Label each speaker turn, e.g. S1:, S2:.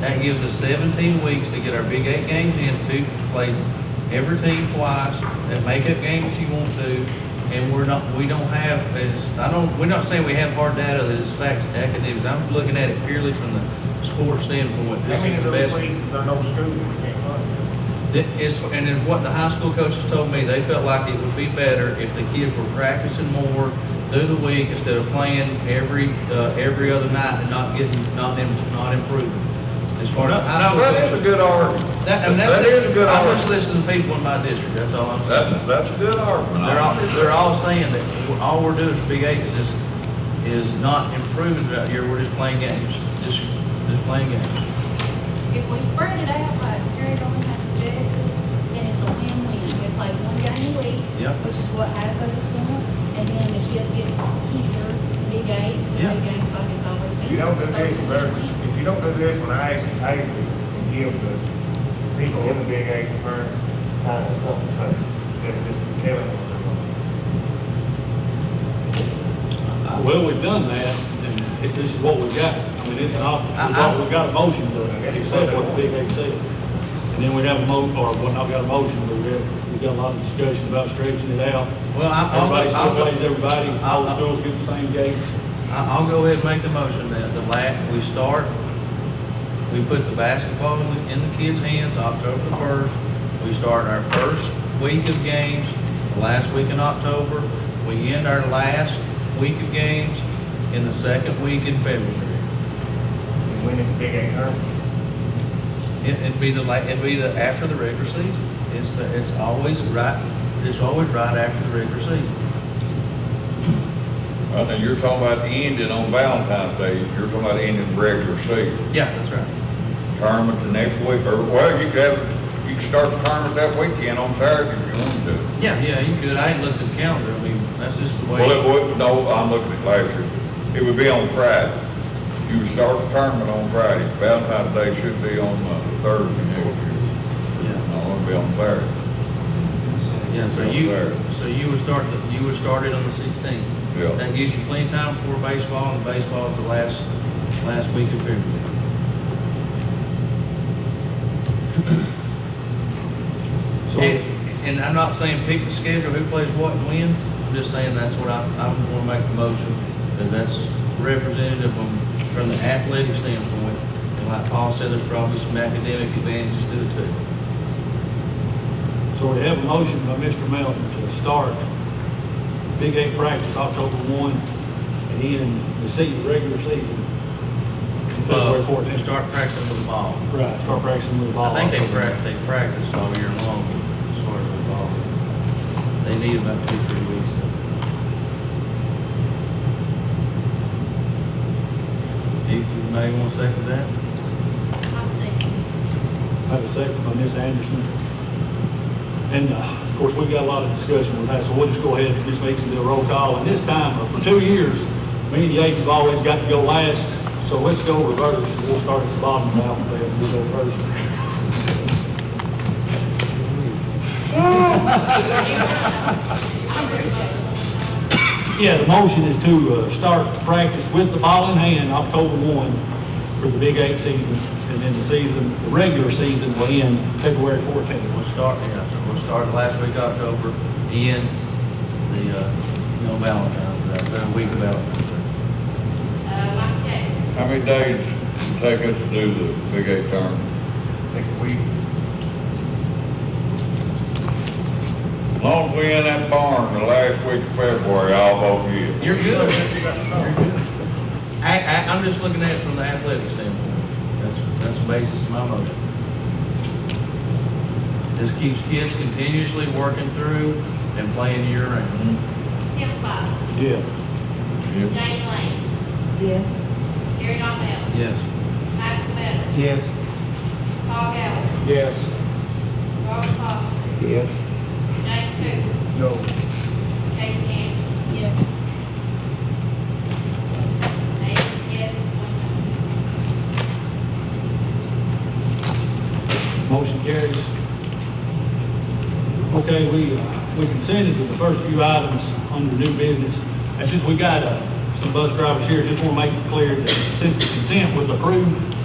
S1: That gives us seventeen weeks to get our Big Eight games in, to play every team twice, that makeup games you want to, and we're not, we don't have, as, I don't, we're not saying we have hard data that is facts and academics, I'm looking at it purely from the sports standpoint,
S2: How
S1: this
S2: many
S1: is
S2: of
S1: the
S2: those
S1: best.
S2: leagues is there no school we can't run?
S1: That is, and it's what the high school coaches told me, they felt like it would be better if the kids were practicing more through the week instead of playing every, uh, every other night and not getting, not, im- not improving. As far as high
S3: Now,
S1: school
S3: that is a
S1: coaches.
S3: good argument.
S1: That, and
S3: that is a
S1: that's,
S3: good
S1: I
S3: argument.
S1: just listen to people in my district, that's all I'm saying.
S3: That's, that's a good argument.
S1: They're all, they're all saying that we're- all we're doing for Big Eight is just, is not improving throughout the year, we're just playing games, just, just playing games.
S4: If we spread it out like Jerry Dorman has suggested, then it's a win-win. They play one game a week,
S1: Yeah.
S4: which is what half of us want, and then the kids get here, big eight,
S1: Yeah.
S4: big eight, like it's always been.
S2: If you don't do
S4: So
S2: this,
S4: it's a
S2: you better,
S4: win-win.
S2: if you don't do this, when I actually pay you and give the people in the big eight firms kind of something to say, instead of just telling them what they're doing.
S5: Well, we've done that, and if this is what we got. I mean, it's an option.
S1: I-
S5: We've got, we've got a motion to accept what the Big Eight said. And then we have a mo, or, well, not got a motion, but we have, we've got a lot of discussion about stretching it out.
S1: Well, I, I'll,
S5: Everybody still
S1: I'll,
S5: plays everybody, all the
S1: I'll-
S5: schools get the same gates.
S1: I- I'll go ahead and make the motion that the la, we start, we put the basketball in the- in the kids' hands October the first. We start our first week of games, the last week in October. We end our last week of games in the second week in February.
S2: And when is the big eight term?
S1: It- It'd be the, la- it'd be the, after the regular season. It's, the it's always right, it's always right after the regular season.
S3: Well, now, you're talking about ending on Valentine's Day, you're talking about ending regular season.
S1: Yeah, that's right.
S3: Tournament the next week, or, well, you could have, you could start the tournament that weekend on Saturday if you wanted to.
S1: Yeah, yeah, you could. I ain't looked at the calendar. I mean, that's just the way.
S3: Well, it would, no, I'm looking at last year, it would be on Friday. You would start the tournament on Friday, Valentine's Day should be on uh, Thursday next year.
S1: Yeah.
S3: No, it'll be on Saturday,
S1: Yeah, so
S3: Yeah,
S1: you,
S3: fair.
S1: so you would start, the- you would start it on the sixteenth.
S3: Yeah.
S1: That gives you plenty of time before baseball, and baseball is the last, last week of February.
S5: So,
S1: And, and I'm not saying pick the schedule, who plays what and when, I'm just saying that's what I, I wanna make the motion, that that's representative from, from the athletic standpoint. And like Paul said, there's probably some academic advantages to it too.
S5: so we have a motion by Mr. Melton to start Big Eight practice October one, and end the season, regular season, in February
S1: Uh,
S5: fourteenth.
S1: and start practicing with the ball.
S5: Right, start practicing with the
S1: I
S5: ball.
S1: think they practice, they practice all year long, as far as the ball. They need about two, three weeks. You, you may want to second that?
S4: I'll second.
S5: I have a second by Ms. Anderson. And, uh, of course, we've got a lot of discussion with that, so we'll just go ahead and just make some roll call. And this time, uh, for two years, me and Yates have always got to go last, so let's go reverse. We'll start at the bottom of the alphabet and we'll go first.
S4: I appreciate it.
S5: Yeah, the motion is to uh, start practice with the ball in hand October 1 for the Big Eight season, and then the season, the regular season will end February 14th.
S1: We'll start, yeah, so we'll start last week, October, end the, uh, you know, Valentine's, Day, the week of Valentine's.
S4: Uh, Mike Davis,
S3: How many days it take us to do the Big Eight tournament?
S2: Next week,
S3: As long as we in that barn the last week of February, I'll vote yes.
S1: Day. You're good.
S2: you got some.
S1: I, I, I'm just looking at it from the athletic standpoint. That's, that's the basis of my motion. This keeps kids continuously working through and playing year round.
S4: Tim Spot,
S5: Yes.
S3: Yes.
S4: Jane Lane,
S6: Yes.
S4: Gary Donald,
S1: Yes.
S4: Michael Bell,
S1: Yes.
S4: Paul Gallagher,
S5: Yes.
S4: Robert Foster,
S2: Yes.
S4: James Cooper,
S2: No.
S4: Casey Anderson.
S6: Yes.
S4: Eight yes, one no.
S5: Motion carries. Okay, we, uh, we consented to the first few items under new business. That's just, we got uh, some bus drivers here, just want to make it clear that since the consent was approved,